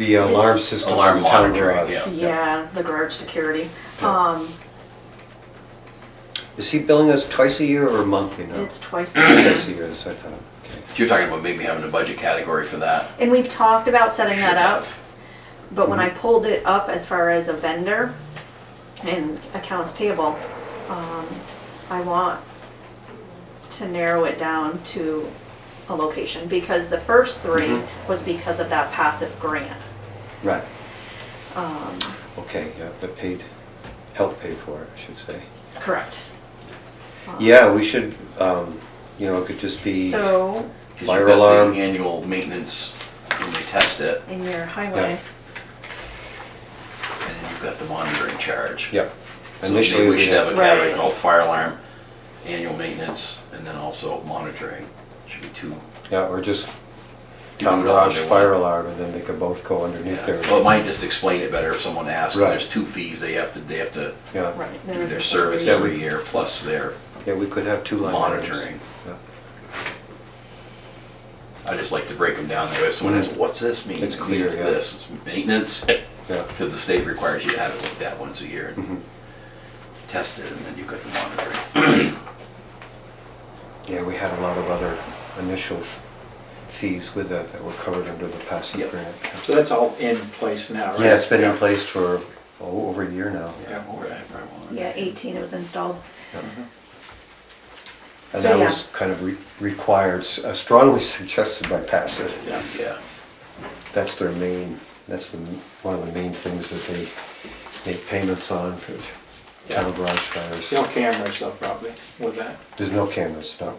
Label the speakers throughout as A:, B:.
A: The uh, alarm
B: This-
A: system
C: Alarm
A: in the town
C: monitoring,
A: garage.
C: yeah.
B: Yeah, the garage security.
A: Yeah.
B: Um,
A: Is he billing us twice a year or a month, you know?
B: Um, it's twice a year.
A: Twice a year, that's what I thought. Okay.
C: You're talking about maybe having a budget category for that.
B: And we've talked about setting
C: Should
B: that up,
C: have.
B: but when I
C: Mm-hmm.
B: pulled it up as far as a vendor and accounts payable, um, I want to narrow it down to a location because the first three
C: Mm-hmm.
B: was because of that passive grant.
A: Right,
B: Um,
A: okay, yeah, they paid, help pay for it, I should say.
B: Correct. Um,
A: Yeah, we should, um, you know, it could just be,
B: So,
C: 'Cause you've
A: Fire
C: got the
A: alarm.
C: Annual maintenance, when they test it,
B: in your highway,
C: and then you've got the monitoring charge.
A: yeah.
C: So
A: Initially,
C: maybe we should have a
A: had-
C: category
B: Right.
C: called fire alarm, annual maintenance, and then also monitoring. Should be two.
A: Yeah, or just
C: Do
A: town
C: it all
A: garage
C: under
A: fire
C: one.
A: alarm, and then they could both go underneath there.
C: Yeah. Well, it might just explain it better if someone asks, 'cause
A: Right.
C: there's two fees, they have to, they have to
A: Yeah,
B: right. there
C: do
B: is
C: their
B: a-
C: service
A: Yeah, we-
C: every year, plus their,
A: yeah, we could have two line items.
C: Monitoring.
A: Yeah.
C: I just like to break them down that way. If someone asks, what's this mean?
A: It's
C: It means
A: clear, yeah.
C: This, it's maintenance,
A: Yeah,
C: because the state requires you to have it looked at once a year
A: Mhm.
C: and
A: Mm-hmm.
C: tested, and then you've got the monitoring.
A: yeah, we had a lot of other initial f- fees with that that were covered under the passive
C: Yep.
A: grant. yeah.
D: So that's all in place now, right?
A: Yeah, it's been in place for oh, over a year now.
C: Yeah, all right, all right.
B: Yeah, 18 it was installed.
A: And
B: So,
A: that
B: yeah.
A: was kind of re- required, s- uh, strongly suggested by passive.
D: Yeah.
C: Yeah,
A: That's their main, that's the, m- one of the main things that they make payments on for town
D: Yeah.
A: garage fires.
D: No cameras though, probably, with that.
A: There's no cameras, no.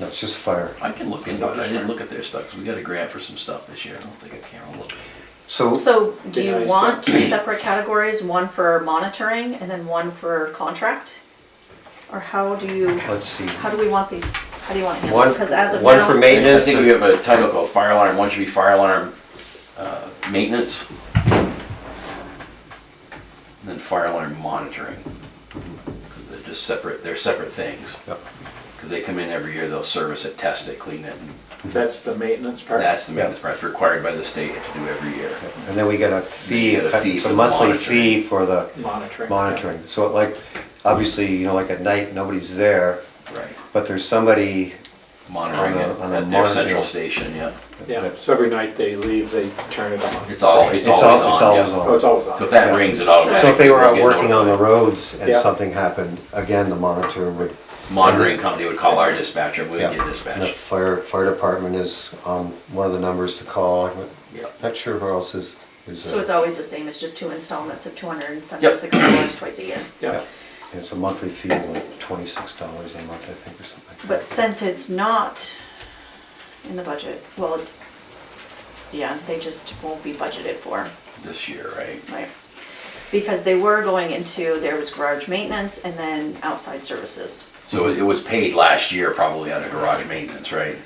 A: No, it's just fire.
C: I can look into it. I didn't look at their stuff, 'cause we got a grant for some stuff this year. I don't think I can look.
A: So,
B: So do
D: Yeah, I
B: you
D: see.
B: want two separate categories, one for monitoring and then one for contract? Or how do you,
A: let's see.
B: how do we want these, how do you want to handle?
A: One,
B: it? Because as of
A: one for
B: now,
C: I
A: maintenance.
C: think we have a title called fire alarm. One should be fire alarm, uh, maintenance. And Then fire alarm monitoring. 'Cause They're just separate, they're separate things,
A: Yep.
C: because they come in every year, they'll service it, test it, clean it, and
D: That's the maintenance part.
C: That's the maintenance part, it's required by the state to do every year.
A: And then we get a fee,
C: You get a fee
A: it's
C: for
A: a
C: the
A: monthly
C: monitoring.
A: fee for the
D: Monitoring.
A: monitoring. So like, obviously, you know, like at night, nobody's there,
C: Right.
A: but there's somebody
C: Monitoring
A: On a-
C: it
A: on a
C: at their
A: monitor.
C: central station, yeah.
D: Yeah, so every night they leave, they turn it on.
C: It's all, it's
A: It's al-
C: always
A: it's
C: on,
A: always
C: yeah.
A: on.
D: Oh, it's always on.
C: So if that
A: Yeah.
C: rings, it automatically.
A: So if they were
C: will
A: out
C: get
A: working on the
C: notified.
A: roads and
D: Yeah.
A: something happened, again, the monitor would.
C: Monitoring company would call our dispatcher, and we
A: Yeah.
C: would get
A: And The
C: dispatched.
A: fire, fire department is um, one of the numbers to call. I'm
C: Yep.
A: not sure who else is, is. uh,
B: So it's always the same, it's just two installments of $276 twice a year.
D: Yeah,
A: It's a monthly fee of like twenty-six dollars a month, I think, or something. like
B: But
A: that.
B: since it's not in the budget, well, it's, yeah, they just won't be budgeted for.
C: This year, right?
B: Right. Because they were going into, there was garage maintenance and then outside services.
C: So it it was paid last year probably out of garage maintenance, right?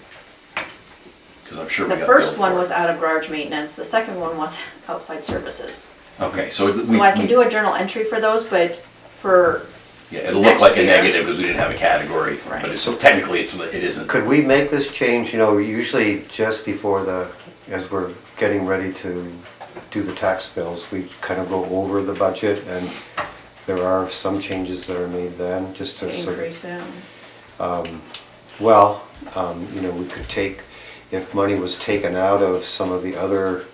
C: Because I'm sure we
B: The
C: got.
B: first
C: billed
B: one
C: for it.
B: was out of garage maintenance, the second one was outside services.
C: Okay, so it- we.
B: So I can do a journal entry for those, but for,
C: Yeah, it'll look
B: next
C: like a
B: year.
C: negative because we didn't have a category,
B: Right.
C: but it's, technically it's, it isn't.
A: Could we make this change, you know, usually just before the, as we're getting ready to do the tax bills, we kind of go over the budget and there are some changes that are made then, just to. sort of-
B: increase in,
A: Well, um, you know, we could take, if money was taken out of some of the other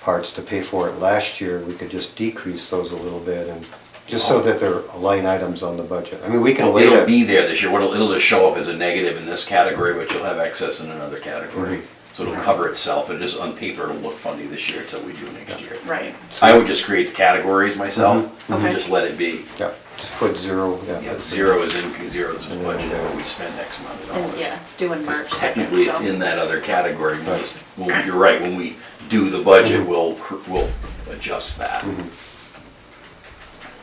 A: parts to pay for it last year, we could just decrease those a little bit and, just so that they're line items on the budget. I mean, we can
C: Well,
A: wait
C: It'll
A: a,
C: be there this year, What'll- it'll just show up as a negative in this category, but you'll have excess in another category.
A: Mhm.
C: So it'll cover itself, it is on paper, it'll look funny this year until we do it next year.
B: right,
C: I would just create the categories myself,
B: Mhm.
C: and
B: Okay.
C: just let it be,
A: yeah, just put zero,
C: Yeah,
A: yeah.
C: zero is in, zero is in budget, and what we spend X amount of
B: and
C: dollars.
B: yeah, it's due in March
C: Because
B: second,
C: technically, it's
B: so.
C: in that other category, we'll just, well, you're right, when we do the
A: Mm-hmm.
C: budget, we'll, cr- we'll adjust that.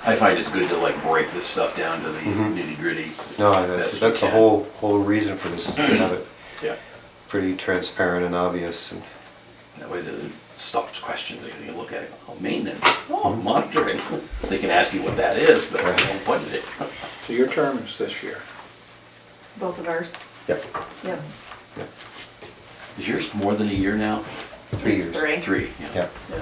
C: I find it's good to like break this stuff down to the nitty gritty.
A: Mm-hmm. No, that's, that's the whole, whole reason for this, is to have it
D: yeah.
A: pretty transparent and obvious and.
C: That way the stops questions, they can look at it, oh, maintenance, oh,
A: Mm-hmm.
C: monitoring. They can ask you what that is, but I don't budget it.
D: So your term is this year.
B: Both of ours,
A: Yep.
B: yep.
C: Is yours more than a year now?
B: Three
C: It's
B: years.
C: Three.
A: Three, yeah.
B: Yeah.
C: Yeah.